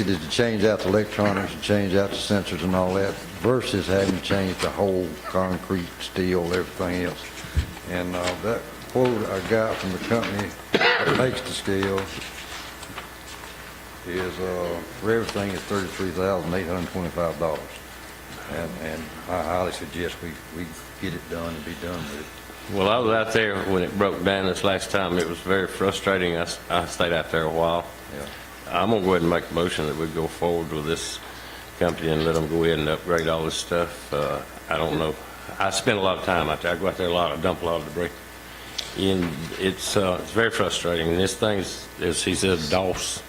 It is to change out the electronics and change out the sensors and all that versus having to change the whole concrete, steel, everything else. And uh, that quote I got from the company that makes the scale is, uh, for everything is thirty-three thousand eight hundred and twenty-five dollars. And, and I highly suggest we, we get it done and be done with it. Well, I was out there when it broke down this last time. It was very frustrating. I, s- I stayed out there a while. Yeah. I'm gonna go ahead and make a motion that we go forward with this company and let them go ahead and upgrade all this stuff. Uh, I don't know. I spend a lot of time out there. I go out there a lot. I dump a lot of debris. And it's, uh, it's very frustrating. And this thing's, as he says, DOS.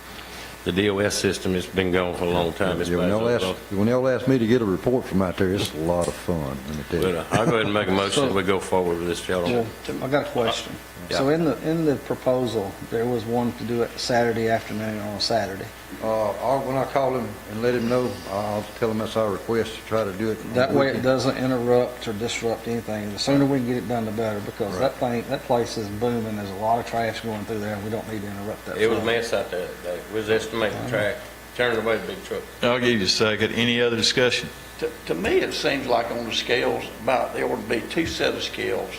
The DOS system, it's been gone for a long time. It's Yeah, When bad. y'all ask, when y'all ask me to get a report from out there, it's a lot of fun, let me tell But you. uh, I'll go ahead and make a motion that we go forward with this Well, gentleman. I got a question. Yeah. So in the, in the proposal, there was one to do it Saturday afternoon on a Saturday. Uh, I'll, when I call him and let him know, I'll tell him that's our request to try to do it. That way it doesn't interrupt or disrupt anything. The sooner we can get it done, the better, because that thing, that place is booming. There's a lot of trash going through there, and we don't need to interrupt that. It was flow. a mess out there that day. We was estimating the track, turning away the big truck. I'll give you a second. Any other discussion? To, to me, it seems like on the scales, about, there ought to be two set of scales.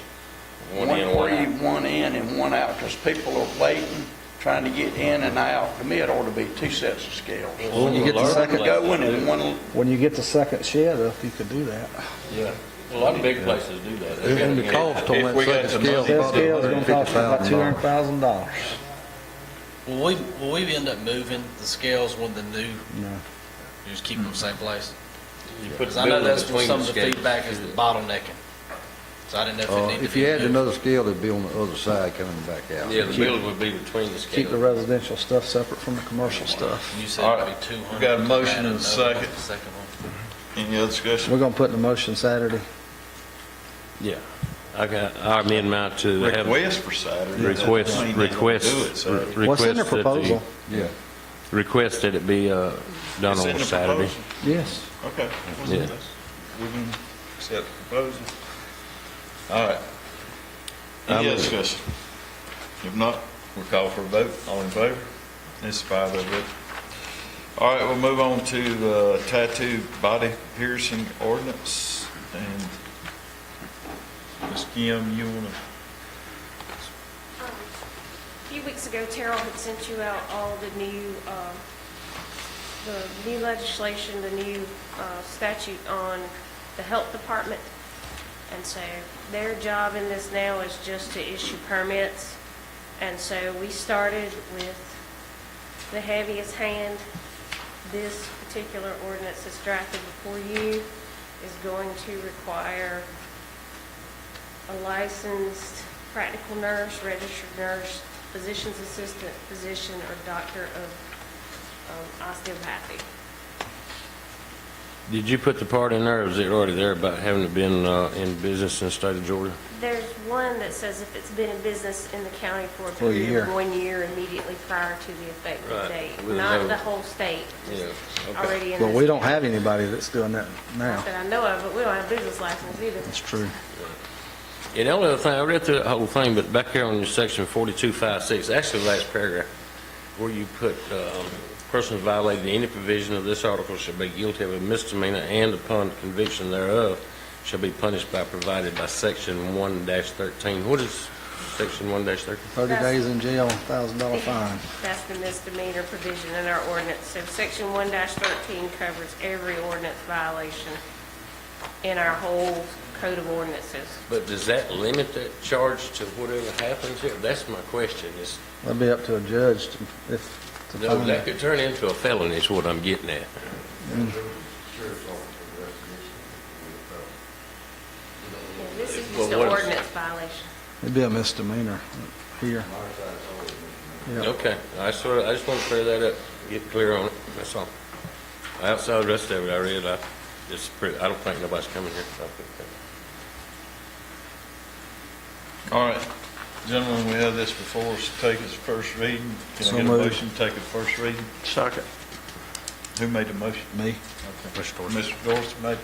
One in, one free, out. One in and one out, because people are waiting, trying to get in and out. To me, it ought to be two sets of scales. When you get the One to second, go in and one, when you get the second shed up, you could do that. Yeah, a lot of big places do that. They And the gotta get- cost on If that we got second scale. the money- is That probably scale's gonna cost you about two $150,000. hundred thousand dollars. Will we, will we end up moving the scales when the new, No. just keep them Hmm. the same place? You put Because the I know building that's what between some the of the scales. feedback is the bottlenecking. So I didn't know if it Uh, needed to be. If you add moved. another scale, it'd be on the other side coming back out. Yeah, the building would be between the Keep the scales. residential stuff separate from the commercial stuff. You All said right. it'd be two hundred. We got a motion and a second. Second one. Any other discussion? We're gonna put in a motion Saturday. Yeah. I got, I amend mine to have. Request for Saturday. Request, Doesn't mean they don't do it request. re- Saturday. What's in the request that the- proposal? Yeah. Request that it be uh, done It's in on the Saturday. proposal. Yes. Okay. Yeah. We can accept the proposal. All right. I'm- Any other discussion? If not, we'll call for a vote. All in favor? It's five of it. All right, we'll move on to uh, tattoo body piercing ordinance. And Ms. Kim, you want to A few weeks ago, Terrell had sent you out all the new, um, the new legislation, the new uh, statute on the health department. And so their job in this now is just to issue permits. And so we started with the heaviest hand. This particular ordinance that's drafted before you is going to require a licensed practical nurse, registered nurse, physician's assistant, physician, or doctor of um, osteopathy. Did you put the part in there, or was it already there about having it been uh, in business in the state of Georgia? There's one that says if it's been in business in the county for a For a period of year. one year immediately prior to the effective Right. date, With not no- the whole state, just Yeah, okay. already in this. Well, we don't have anybody that's doing that now. That I know of, but we don't have business license either. That's true. And the only other thing, I read through that whole thing, but back here on your section 4256, actually the last paragraph, where you put, um, persons violating any provision of this article shall be guilty of a misdemeanor and upon conviction thereof shall be punished by provided by section 1-13. What is section 1-13? Thirty days in jail, thousand dollar fine. That's the misdemeanor provision in our ordinance. So section one thirteen covers every ordinance violation in our whole code of ordinances. But does that limit that charge to whatever happens here? That's my question, is That'd be up to a judge to, if, to No, find that it. could turn into a felony is what I'm getting at. Yeah, This is Well, just an what is- ordinance violation. It'd be a misdemeanor here. Yeah. Okay, I sort of, I just want to clear that up, get clear on it, that's all. Outside the rest of it, I read, I, it's pretty, I don't think nobody's coming here. so I think that- All right, gentlemen, we have this before us, take its first reading. Can So I get a moved. motion, to take it first reading? second. Who made the motion? Me? Okay. Mr. Dorsey. Mr. Dorsey made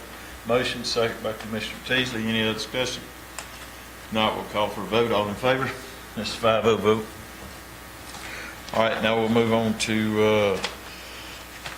motion, second by Commissioner Teasley. Any other discussion? Not, we'll call for a vote. All in favor? That's a five oh vote. All right, now we'll move on to uh,